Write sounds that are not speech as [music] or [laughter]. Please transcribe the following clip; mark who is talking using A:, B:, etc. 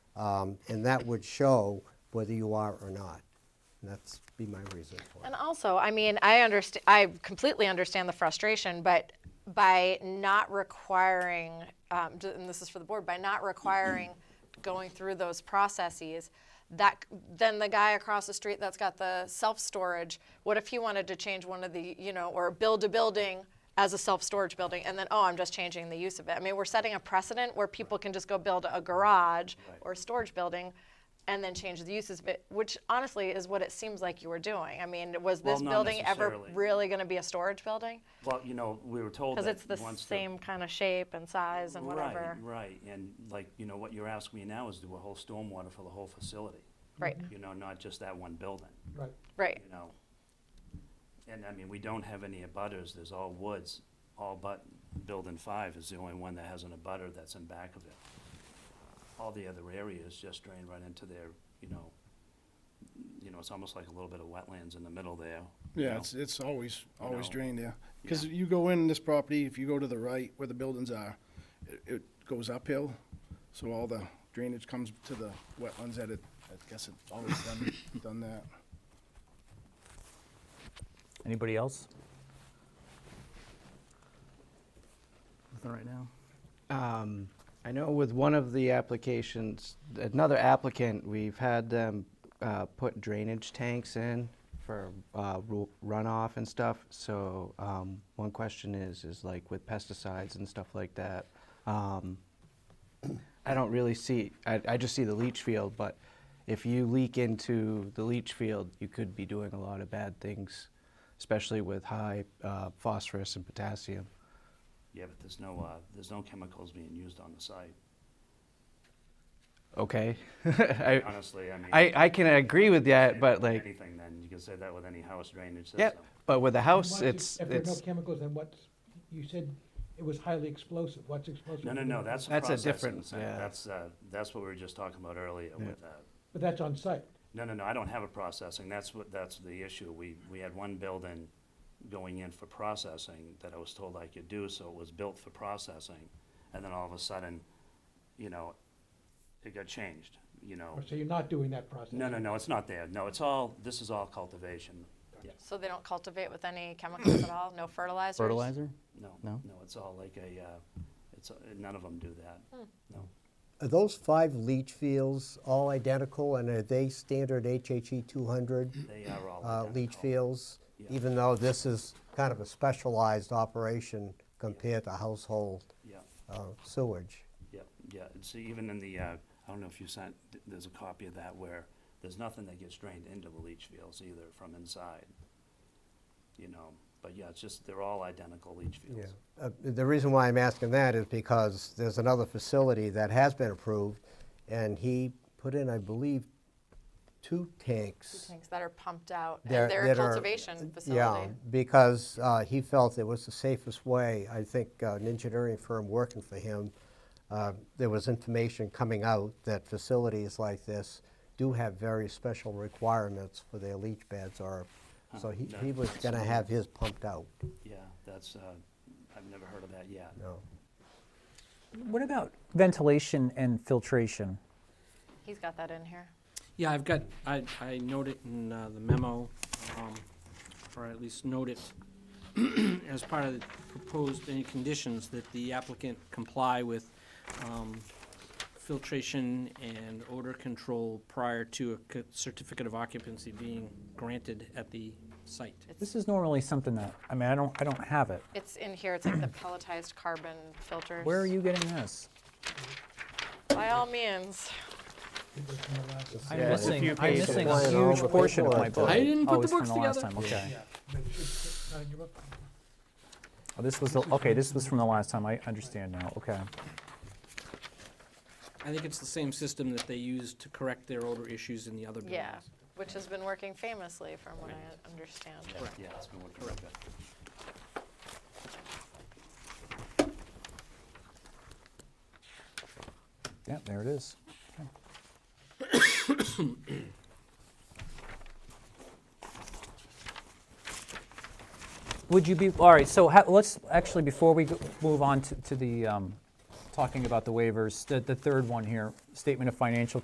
A: um, and that would show whether you are or not. And that's be my reason for it.
B: And also, I mean, I understand. I completely understand the frustration, but by not requiring, um, d- and this is for the board, by not requiring going through those processes, that c- then the guy across the street that's got the self storage, what if he wanted to change one of the, you know, or build a building? As a self-storage building, and then oh, I'm just changing the use of it. I mean, we're setting a precedent where people can just go build a garage or a storage building, and then change the uses of it, which honestly is what it seems like you were doing. I mean, was
C: Well,
B: this
C: not
B: building ever
C: necessarily.
B: really going to be a storage building?
C: Well, you know, we were told
B: Because
C: that
B: it's the
C: once
B: same kind of shape and size and whatever.
C: Right, right, and like, you know, what you're asking me now is do a whole stormwater for the whole facility.
B: Right,
C: You know, not just that one building,
D: Right.
B: right.
C: you know? And I mean, we don't have any abutters, there's all woods, all but building five is the only one that has an abutter that's in back of it. All the other areas just drain right into their, you know, you know, it's almost like a little bit of wetlands in the middle there. you
E: Yeah,
C: know?
E: it's, it's always,
C: You
E: always
C: know.
E: drained there. Because
C: Yeah.
E: you go in this property, if you go to the right where the buildings are, it, it goes uphill. So all the drainage comes to the wetlands that it, I guess it's always done, done that.
F: Anybody else? Nothing right now.
G: Um, I know with one of the applications, another applicant, we've had them uh, put drainage tanks in for uh, ru- runoff and stuff. So um, one question is, is like with pesticides and stuff like that. um, I don't really see, I, I just see the leach field, but if you leak into the leach field, you could be doing a lot of bad things, especially with high uh, phosphorus and potassium.
C: Yeah, but there's no, uh, there's no chemicals being used on the site,
G: Okay. [laughs] I,
C: honestly, I mean.
G: I, I can agree with that,
C: Say that
G: but
C: with
G: like,
C: Anything then, you can say that with any house drainage system.
G: yep. But with a house,
D: Once you-
G: Oh, it's,
D: If there are no
G: it's,
D: chemicals, then what's, you said it was highly explosive, what's explosive?
C: No, no, no, that's.
G: That's a
C: processing
G: different-
C: center.
G: yeah.
C: That's, uh, that's what we were just talking about earlier with, uh,
D: But that's on site,
C: no, no, no, I don't have a processing, that's what, that's the issue. We, we had one building going in for processing that I was told I could do, so it was built for processing. And then all of a sudden, you know, it got changed, you know.
D: Or so you're not doing that process?
C: Oh. No, no, no, it's not there. No, it's all, this is all cultivation. Yeah,
B: So they don't cultivate with any chemicals at all? No fertilizers?
F: Fertilizer?
C: no,
F: No?
C: no, it's all like a, uh, it's, none of them do that, no.
A: Are those five leach fields all identical, and are they standard HHE 200
C: They are all
A: uh, leach
C: identical.
A: fields?
C: Oh, Yeah.
A: Even though this is kind of a specialized operation compared to household
C: Yeah,
A: uh, sewage.
C: yeah, yeah. And see, even in the, uh, I don't know if you sent, th- there's a copy of that where there's nothing that gets drained into the leach fields either from inside. You know, but yeah, it's just, they're all identical leach fields.
A: Uh, The reason why I'm asking that is because there's another facility that has been approved, and he put in, I believe, two tanks.
B: Tanks that are pumped out.
A: They're-
B: and they're a
A: that are-
B: cultivation
A: Yeah,
B: facility.
A: because uh, he felt it was the safest way. I think uh, an engineering firm working for him, uh, there was information coming out that facilities like this do have very special requirements for their leach beds or, so he
C: no,
A: he was going to have his pumped out,
C: Yeah, that's, uh, I've never heard of that yet.
A: you know.
F: What about ventilation and filtration?
B: He's got that in here.
H: Yeah, I've got, I, I note it in uh, the memo, um, or at least note it [clears throat] as part of the proposed, any conditions that the applicant comply with um, filtration and odor control prior to a c- certificate of occupancy being granted at the site.
F: This is normally something that, I mean, I don't, I don't have it.
B: It's in here. It's like the pelletized carbon filters.
F: Where are you getting this?
B: By all means.
F: I'm
A: Yeah, it's a
F: missing,
A: few
F: I'm
A: pages.
F: missing
A: Well,
F: a
A: and all
F: huge
A: the
F: portion of my
A: paperwork.
F: book.
H: I didn't put
F: Oh,
H: the
F: it's from
H: books
F: the last
H: together.
F: time, okay.
D: But it's not in your book.
F: Oh, This was, the- okay, this was from the last time, I understand now, okay.
H: I think it's the same system that they use to correct their odor issues in the other buildings.
B: Yeah. Which has been working famously, from what I understand.
C: Yeah, it's been working like that.
F: Yeah, there it is. Okay. Would you be, all right, so ha- let's, actually, before we go- move on to- to the, um, talking about the waivers, the the third one here, statement of financial